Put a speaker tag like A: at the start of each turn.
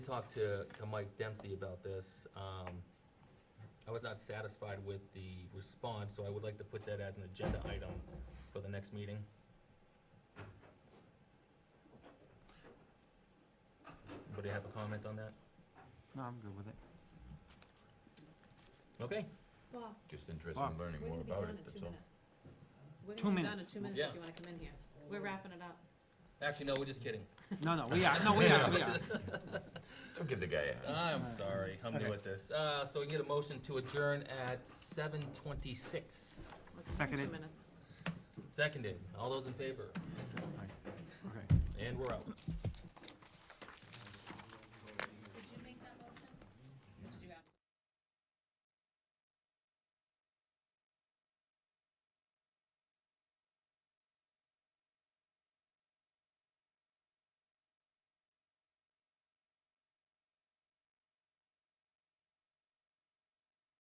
A: talked to, to Mike Dempsey about this. Um, I was not satisfied with the response, so I would like to put that as an agenda item for the next meeting. Anybody have a comment on that?
B: No, I'm good with it.
A: Okay,
C: Well,
D: Just interested in learning
C: we're
D: more
C: gonna be
D: about
C: done in
D: it,
C: two
D: that's all.
C: minutes. We're
B: Two
C: gonna be done in
B: minutes.
C: two minutes
A: Yeah.
C: if you wanna come in here. We're wrapping it up.
A: actually, no, we're just kidding.
B: No, no, we are, no, we are, we are.
D: Don't give the guy a,
A: I'm sorry, I'm new at this. Uh, so we can get a motion to adjourn at seven twenty-six.
C: Let's do
B: Seconded.
C: Two minutes.
A: Seconded, all those in favor,
B: Okay.
A: and we're out.